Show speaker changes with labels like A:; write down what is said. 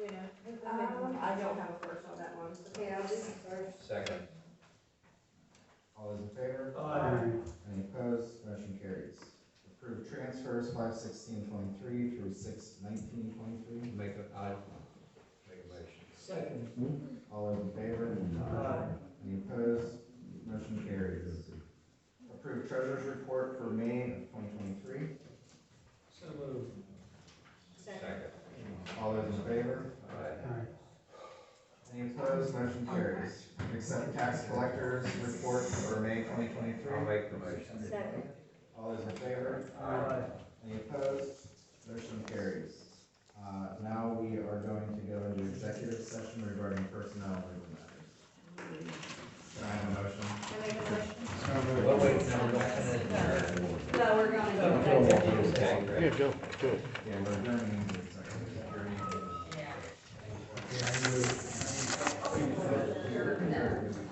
A: Um,
B: I don't have a first on that one.
A: Okay, I'll do first.
C: Second.
D: All those in favor? Any opposed? Motion carries. Approved transfers five sixteen twenty-three through six nineteen twenty-three.
C: Make a, I, make a motion.
E: Second.
D: All those in favor? Any opposed? Motion carries. Approved treasurer's report for May of twenty twenty-three.
E: So moved.
A: Second.
D: All those in favor?
C: Aye.
D: Any opposed? Motion carries. Accept tax collector's report for May twenty
C: I'll
D: twenty-three.
C: make the motion.
A: Second.
D: All those in favor?
E: Aye.
D: Any opposed? Motion carries. Uh, Now we are going to go into executive session regarding personnel and legal matters. Can I have a motion?
A: I make a motion.
C: Well, wait, no, we're not gonna adjourn.
A: No, we're going to go back to.
C: Okay, great.
D: Yeah, we're going into executive. session.